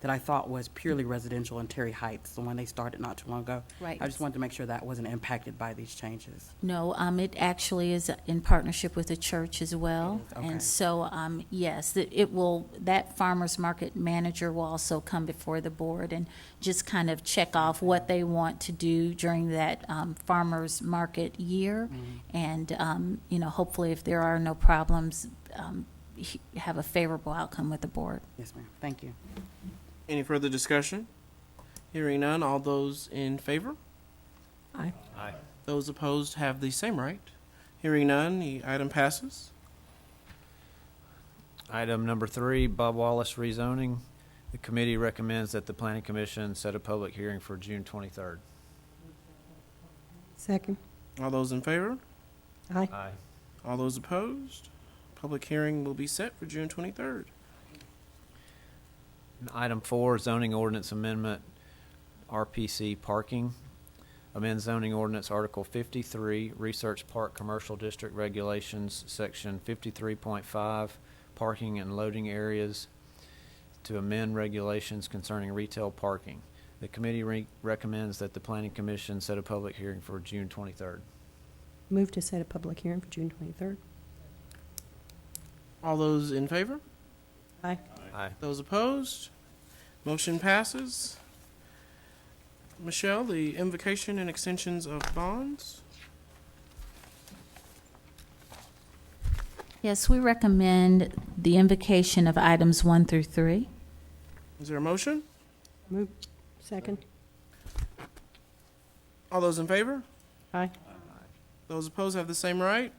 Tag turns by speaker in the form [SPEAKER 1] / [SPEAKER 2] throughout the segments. [SPEAKER 1] that I thought was purely residential in Terry Heights, the one they started not too long ago.
[SPEAKER 2] Right.
[SPEAKER 1] I just wanted to make sure that wasn't impacted by these changes.
[SPEAKER 2] No, um, it actually is in partnership with the church as well.
[SPEAKER 1] It is, okay.
[SPEAKER 2] And so, um, yes, it it will, that farmer's market manager will also come before the board and just kind of check off what they want to do during that, um, farmer's market year. And, um, you know, hopefully if there are no problems, um, he- have a favorable outcome with the board.
[SPEAKER 1] Yes, ma'am. Thank you.
[SPEAKER 3] Any further discussion? Hearing none, all those in favor?
[SPEAKER 4] Aye.
[SPEAKER 5] Aye.
[SPEAKER 3] Those opposed have the same right. Hearing none, the item passes.
[SPEAKER 5] Item number three, Bob Wallace rezoning. The committee recommends that the planning commission set a public hearing for June twenty-third.
[SPEAKER 4] Second.
[SPEAKER 3] All those in favor?
[SPEAKER 4] Aye.
[SPEAKER 5] Aye.
[SPEAKER 3] All those opposed? Public hearing will be set for June twenty-third.
[SPEAKER 5] And Item four, zoning ordinance amendment, RPC parking. Amend zoning ordinance Article fifty-three, Research Park Commercial District Regulations, Section fifty-three point five, parking and loading areas to amend regulations concerning retail parking. The committee re- recommends that the planning commission set a public hearing for June twenty-third.
[SPEAKER 4] Move to set a public hearing for June 23rd.
[SPEAKER 3] All those in favor?
[SPEAKER 4] Aye.
[SPEAKER 5] Aye.
[SPEAKER 3] Those opposed? Motion passes. Michelle, the invocation and extensions of bonds.
[SPEAKER 2] Yes, we recommend the invocation of items one through three.
[SPEAKER 3] Is there a motion?
[SPEAKER 4] Move. Second.
[SPEAKER 3] All those in favor?
[SPEAKER 4] Aye.
[SPEAKER 3] Those opposed have the same right.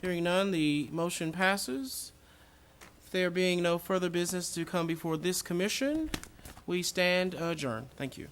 [SPEAKER 3] Hearing none, the motion passes. There being no further business to come before this commission, we stand adjourned. Thank you.